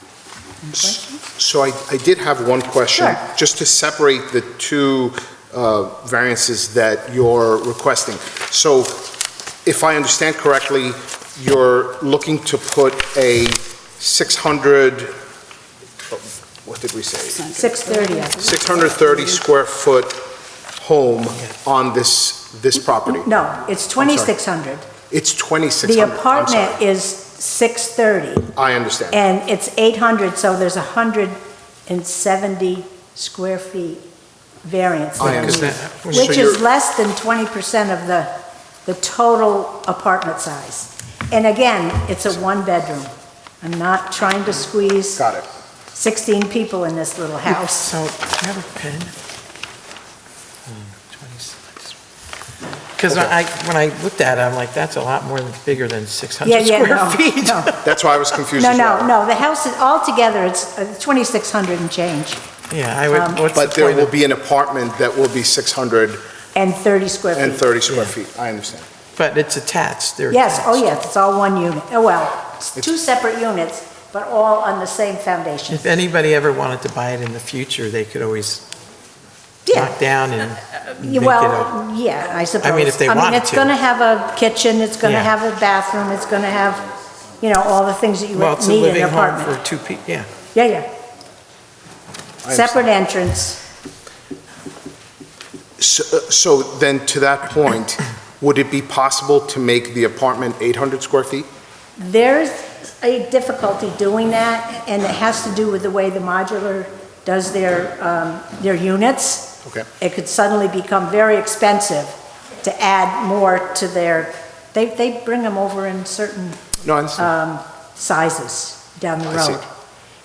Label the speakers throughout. Speaker 1: Any questions?
Speaker 2: So I, I did have one question.
Speaker 1: Sure.
Speaker 2: Just to separate the two uh, variances that you're requesting. So if I understand correctly, you're looking to put a 600, oh, what did we say?
Speaker 1: 6:30, I think.
Speaker 2: 630 square foot home on this, this property.
Speaker 1: No, it's 2,600.
Speaker 2: It's 2,600.
Speaker 1: The
Speaker 2: I'm sorry.
Speaker 1: apartment is 630,
Speaker 2: I understand.
Speaker 1: and it's 800, so there's 170 square feet variance.
Speaker 2: I
Speaker 1: there,
Speaker 2: understand. So
Speaker 1: Which
Speaker 2: you're-
Speaker 1: is less than 20% of the, the total apartment size. And again, it's a one-bedroom. I'm not trying to squeeze
Speaker 2: Got it.
Speaker 1: 16 people in this little house.
Speaker 3: So, do you have a pen?
Speaker 1: Hmm,
Speaker 3: Because I, when I looked at it, I'm like, that's a lot more than, bigger than
Speaker 1: Yeah,
Speaker 3: 600
Speaker 1: yeah, no,
Speaker 3: square feet.
Speaker 1: no.
Speaker 2: That's why I was confused
Speaker 1: No,
Speaker 2: as well.
Speaker 1: no, no, the house is, altogether, it's uh, 2,600 and change,
Speaker 3: Yeah, I
Speaker 1: Um,
Speaker 3: would, what's the
Speaker 2: But there
Speaker 3: point
Speaker 2: will
Speaker 3: of?
Speaker 2: be an apartment that will be 600
Speaker 1: and 30 square
Speaker 2: And
Speaker 1: feet.
Speaker 2: 30 square feet, I understand.
Speaker 3: But it's attached, they're
Speaker 1: Yes, oh
Speaker 3: attached.
Speaker 1: yes, it's all one unit, oh well, it's two separate units, but all on the same foundation.
Speaker 3: If anybody ever wanted to buy it in the future, they could always
Speaker 1: Yeah, Uh,
Speaker 3: knock down and make it a,
Speaker 1: well, yeah, I suppose.
Speaker 3: if they
Speaker 1: I mean,
Speaker 3: wanted
Speaker 1: it's
Speaker 3: to.
Speaker 1: going to have a kitchen, it's going to
Speaker 3: Yeah.
Speaker 1: have a bathroom, it's going to have, you know, all the things that you
Speaker 3: well,
Speaker 1: would
Speaker 3: it's a
Speaker 1: need in
Speaker 3: living
Speaker 1: an
Speaker 3: home
Speaker 1: apartment.
Speaker 3: for two people, yeah.
Speaker 1: Yeah, yeah,
Speaker 2: I
Speaker 1: separate entrance,
Speaker 2: understand. So uh, so then, to that point, would it be possible to make the apartment 800 square feet?
Speaker 1: there's a difficulty doing that, and it has to do with the way the modular does their, um, their units.
Speaker 2: Okay.
Speaker 1: it could suddenly become very expensive to add more to their, they, they bring them over in certain
Speaker 2: No, I understand.
Speaker 1: Uh, sizes down the
Speaker 2: I see.
Speaker 1: road.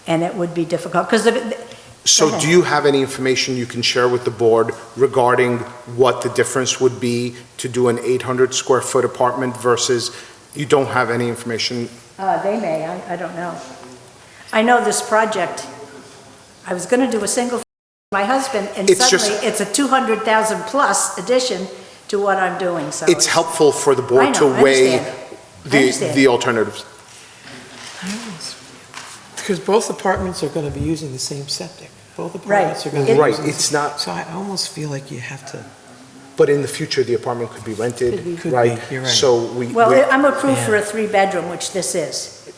Speaker 1: And it would be difficult, because
Speaker 2: So
Speaker 1: ahead.
Speaker 2: do you have any information you can share with the board regarding what the difference would be to do an 800 square foot apartment versus, you don't have any information?
Speaker 1: uh, they may, I, I don't know. I know this project, I was gonna do a single, for my husband, and
Speaker 2: It's just-
Speaker 1: suddenly it's a 200,000 plus addition to what I'm doing, so.
Speaker 2: It's helpful for the
Speaker 1: I
Speaker 2: board to
Speaker 1: know, I
Speaker 2: weigh
Speaker 1: understand. I
Speaker 2: the
Speaker 1: understand.
Speaker 2: the alternatives.
Speaker 3: Because both apartments are going to be using the same septic. Both
Speaker 1: Right.
Speaker 3: apartments are going to be
Speaker 2: Right,
Speaker 3: using the
Speaker 2: it's
Speaker 3: same-
Speaker 2: not-
Speaker 3: So I almost feel like you have to,
Speaker 2: But in the future, the apartment could be
Speaker 3: Could be.
Speaker 2: rented,
Speaker 3: Could
Speaker 2: right?
Speaker 3: be, you're right.
Speaker 2: So we, we-
Speaker 1: Well, I'm approved for a
Speaker 3: Yeah.
Speaker 1: three-bedroom, which this is.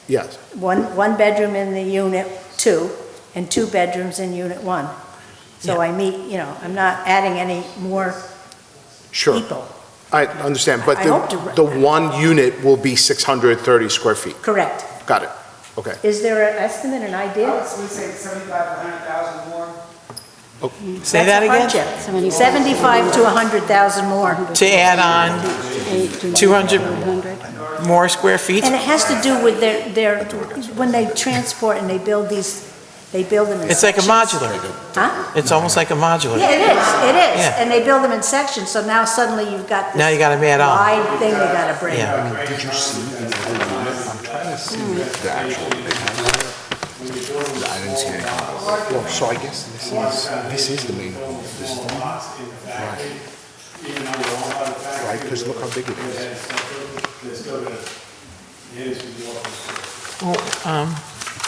Speaker 2: yes,
Speaker 1: one, one bedroom in the unit two, and two bedrooms in unit one. So I meet, you know, I'm not adding any more
Speaker 2: sure.
Speaker 1: people,
Speaker 2: I understand, but
Speaker 1: I hope to-
Speaker 2: the, the one unit will be 630 square feet.
Speaker 1: correct?
Speaker 2: Got it.
Speaker 1: Is there an estimate, an
Speaker 4: I
Speaker 1: idea?
Speaker 4: would say seventy-five, a hundred thousand more.
Speaker 3: say
Speaker 1: That's
Speaker 3: that
Speaker 1: a
Speaker 3: again?
Speaker 1: hardship. Seventy-five to a hundred thousand more.
Speaker 3: To add on 200 more square feet?
Speaker 1: And it has to do with their, their, when they transport and they build these, they build them in
Speaker 3: It's like a
Speaker 1: sections.
Speaker 3: modular.
Speaker 1: Huh?
Speaker 3: It's almost like a modular.
Speaker 1: Yeah, it is, it is.
Speaker 3: Yeah.
Speaker 1: And they build them in sections, so now suddenly you've got this
Speaker 3: Now you gotta add on.
Speaker 1: wide thing you gotta bring.
Speaker 3: Yeah.
Speaker 2: Well, so I guess this is, this is the main home, this is the main Right, because look how big it is.
Speaker 3: Well, um,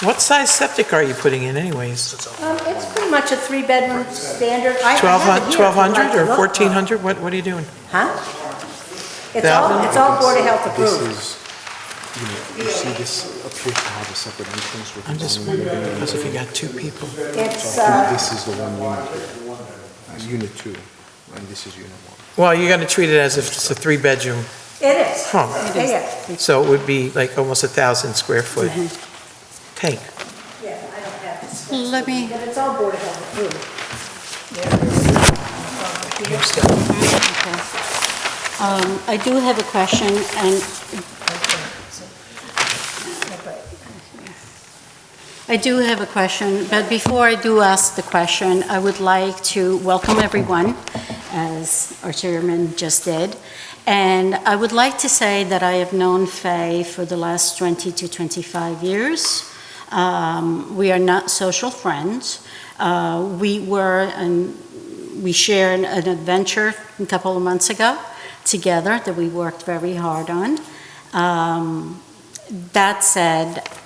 Speaker 3: What size septic are you putting in anyways?
Speaker 1: Um, It's pretty much a three-bedroom standard. I- I have it here if you'd like
Speaker 3: 1,200
Speaker 1: to
Speaker 3: or
Speaker 1: look.
Speaker 3: 1,400? What, what are you doing?
Speaker 1: Huh? It's all, it's all Board of Health
Speaker 2: This
Speaker 1: approved.
Speaker 2: is, you know, you see this appears to have a separate entrance with
Speaker 3: I'm
Speaker 2: its
Speaker 3: just
Speaker 2: own
Speaker 3: wondering,
Speaker 2: living
Speaker 3: because if you got two people,
Speaker 1: It's,
Speaker 2: room.
Speaker 1: uh,
Speaker 2: This is the one unit here, unit two, and this is unit one.
Speaker 3: well, you're gonna treat it as if it's a three-bedroom
Speaker 1: it is.
Speaker 3: home.
Speaker 1: Yeah, yeah,
Speaker 3: So it would be like almost a 1,000 square foot
Speaker 1: Mm-hmm.
Speaker 3: tank.
Speaker 1: yeah, I don't have this.
Speaker 5: Let me,
Speaker 1: But it's all Board of Health approved.
Speaker 5: okay. Um, I do have a question, and I do have a question, but before I do ask the question, I would like to welcome everyone, as our chairman just did. And I would like to say that I have known Faye for the last 20 to 25 years. Um, We are not social friends. Uh, We were, and we shared an adventure a couple of months ago together that we worked very hard on. Um, That said,